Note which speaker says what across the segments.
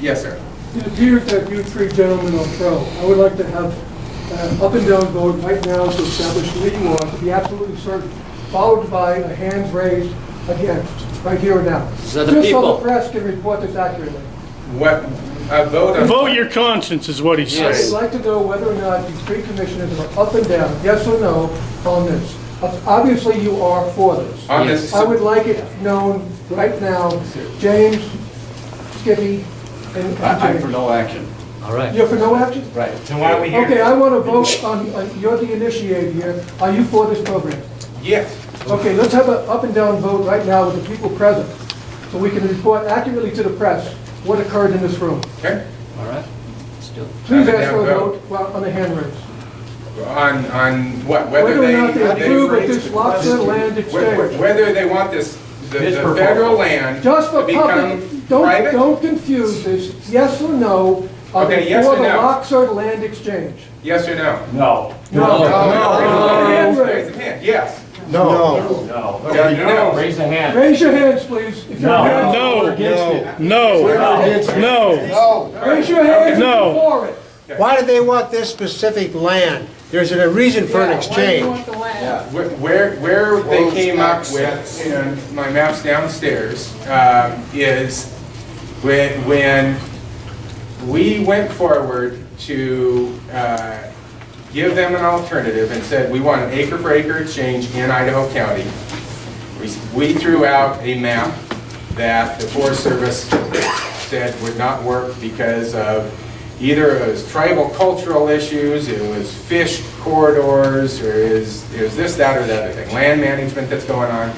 Speaker 1: Yes, sir.
Speaker 2: It appears that you three gentlemen are pro. I would like to have an up and down vote right now to establish legal law, to be absolutely certain, followed by a hands raised again, right here and now.
Speaker 3: So the
Speaker 2: Just so
Speaker 3: people-
Speaker 2: the press can report this accurately.
Speaker 1: What, a vote on...
Speaker 4: Vote your conscience is what he
Speaker 2: I'd
Speaker 4: says.
Speaker 2: like to know whether or not these three commissioners are up and down, yes or no, on this. Obviously, you are for this.
Speaker 1: On this,
Speaker 2: I would like it known right now, James, Skippy, and and
Speaker 5: I- I'm for
Speaker 2: James.
Speaker 5: no action.
Speaker 3: All right.
Speaker 2: You're for no action?
Speaker 5: Right.
Speaker 6: So why are we
Speaker 2: Okay,
Speaker 6: here?
Speaker 2: I want to vote on, on- you're the initiator here. Are you for this program?
Speaker 1: Yes.
Speaker 2: Okay, let's have an up and down vote right now with the people present, so we can report accurately to the press what occurred in this room.
Speaker 1: Okay.
Speaker 3: All right. Let's do it.
Speaker 2: Please
Speaker 1: Up and
Speaker 2: ask
Speaker 1: down
Speaker 2: for a
Speaker 1: vote.
Speaker 2: vote while- on the hand raise.
Speaker 1: On, on what, whether
Speaker 2: Whether
Speaker 1: they...
Speaker 2: or not they approve of this lobster
Speaker 1: Whe-
Speaker 2: land
Speaker 1: whe-
Speaker 2: exchange.
Speaker 1: Whether they want this, the
Speaker 5: His
Speaker 1: the
Speaker 5: proposal.
Speaker 1: federal land
Speaker 2: Just for
Speaker 1: to become
Speaker 2: public, don't,
Speaker 1: private?
Speaker 2: don't confuse this, yes or no, are
Speaker 1: Okay,
Speaker 2: they
Speaker 1: yes
Speaker 2: for
Speaker 1: or
Speaker 2: the
Speaker 1: no?
Speaker 2: Oxford land exchange?
Speaker 1: Yes or no?
Speaker 5: No.
Speaker 2: Hand
Speaker 1: Raise
Speaker 2: raise.
Speaker 1: your hand, yes.
Speaker 5: No. No.
Speaker 1: Yeah, no.
Speaker 5: Raise a hand.
Speaker 2: Raise your hands, please. if you're-
Speaker 5: No.
Speaker 4: No,
Speaker 6: Against it.
Speaker 4: no, no.
Speaker 2: Raise your hands if
Speaker 4: No.
Speaker 2: you're for it.
Speaker 7: Why do they want this specific land? There's a reason for an exchange.
Speaker 1: Where- Where, where they came up with, and my map's downstairs, um, is when, when we went forward to uh, give them an alternative and said, we want an acre for acre exchange in Idaho County. We- We threw out a map that the Forest Service said would not work because of either it was tribal cultural issues, it was fish corridors, or is, is this, that, or the other thing, land management that's going on.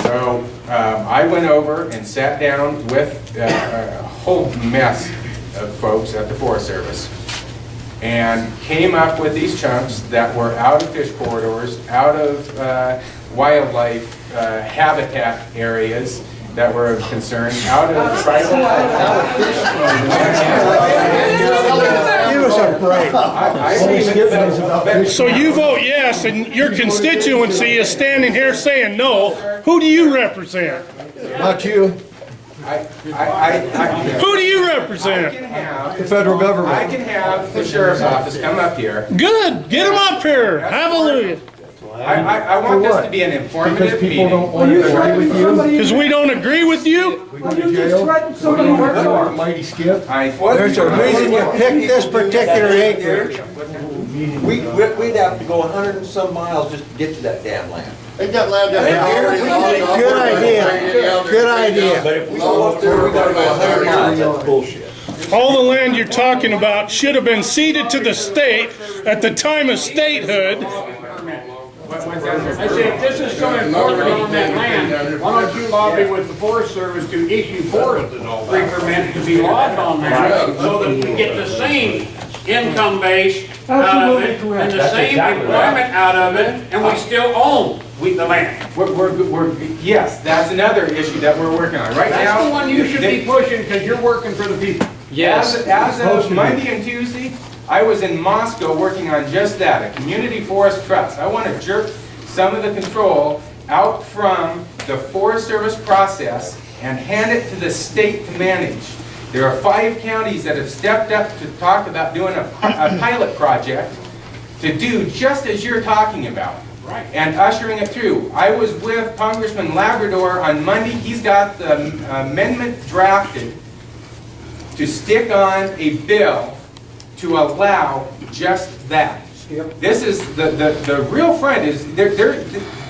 Speaker 1: So um, I went over and sat down with uh, a whole mess of folks at the Forest Service and came up with these chunks that were out of fish corridors, out of uh, wildlife uh, habitat areas that were of concern, out of tribal.
Speaker 7: Give us a break.
Speaker 1: I- I even-
Speaker 4: So you vote yes, and your constituency is standing here saying no. Who do you represent?
Speaker 8: Not you,
Speaker 1: I- I- I- I-
Speaker 4: Who do you
Speaker 1: I
Speaker 4: represent?
Speaker 1: can have-
Speaker 8: the federal government.
Speaker 1: I can have the sheriff's office come up here.
Speaker 4: Good, get them up here. Hallelujah.
Speaker 1: I, I, I want this to be an informative meeting.
Speaker 2: Are you threatening somebody?
Speaker 4: Because we don't agree with you?
Speaker 2: Are you just threatening somebody? Mark?
Speaker 8: Mighty Skip.
Speaker 1: I-
Speaker 7: There's a reason you picked this particular acreage.
Speaker 9: We, we- we'd have to go a hundred and some miles just to get to that damn land.
Speaker 10: They got land down there.
Speaker 7: Good idea, good idea.
Speaker 9: But if we go up there, we gotta go a hundred miles, that's bullshit.
Speaker 4: All the land you're talking about should have been ceded to the state at the time of statehood.
Speaker 6: I said, if this is so important on that land, why don't you lobby with the Forest Service to issue forest free permits to be logged on there? So that we get the same income base out of it,
Speaker 2: Absolutely correct.
Speaker 6: and the
Speaker 5: That's
Speaker 6: same
Speaker 5: exactly right.
Speaker 6: employment out of it, and we still own we- the land.
Speaker 1: We're, we're, we're, yes, that's another issue that we're working on right now.
Speaker 6: That's the one you should be pushing, because you're working for the people.
Speaker 3: Yes.
Speaker 1: As, as of Monday and Tuesday, I was in Moscow working on just that, a community forest trust. I want to jerk some of the control out from the Forest Service process and hand it to the state to manage. There are five counties that have stepped up to talk about doing a, a pilot project to do just as you're talking about. Right. And ushering it through. I was with Congressman Labrador on Monday. He's got the uh, amendment drafted to stick on a bill to allow just that. This is, the, the, the real friend is, there, there,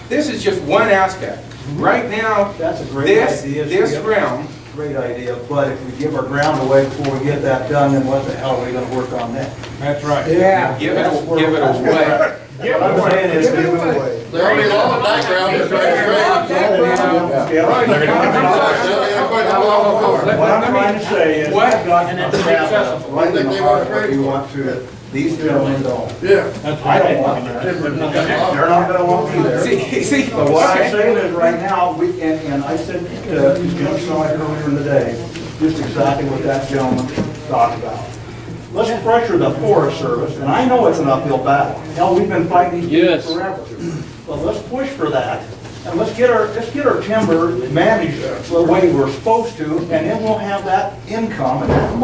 Speaker 1: this is just one aspect. Right now,
Speaker 11: That's a great
Speaker 1: this,
Speaker 11: idea,
Speaker 1: this
Speaker 11: Skip.
Speaker 1: realm,
Speaker 11: Great idea, but if we give our ground away before we get that done, then what the hell are we gonna work on that?
Speaker 6: That's right.
Speaker 11: Yeah.
Speaker 1: give it, give it away.
Speaker 11: What I'm saying is, give it away.
Speaker 10: They already lost the background. It's right, it's
Speaker 1: Let-
Speaker 6: What
Speaker 1: let
Speaker 6: I'm
Speaker 1: me-
Speaker 6: trying to say is,
Speaker 1: What?
Speaker 6: I've got a
Speaker 11: Right
Speaker 6: successful.
Speaker 11: in the heart of what you want to, these gentlemen don't.
Speaker 10: Yeah.
Speaker 11: I don't want that. They're not gonna want me there.
Speaker 1: See, see,
Speaker 11: But what I'm
Speaker 1: okay.
Speaker 11: saying is, right now, we, and, and I said uh, to Jim Sonic earlier in the day, just exactly what that gentleman talked about. Let's pressure the Forest Service, and I know it's an uphill battle. Hell, we've been fighting these people
Speaker 3: Yes.
Speaker 11: forever. But let's push for that, And let's get our, let's get our timber managed the way we're supposed to, and then we'll have that income and that money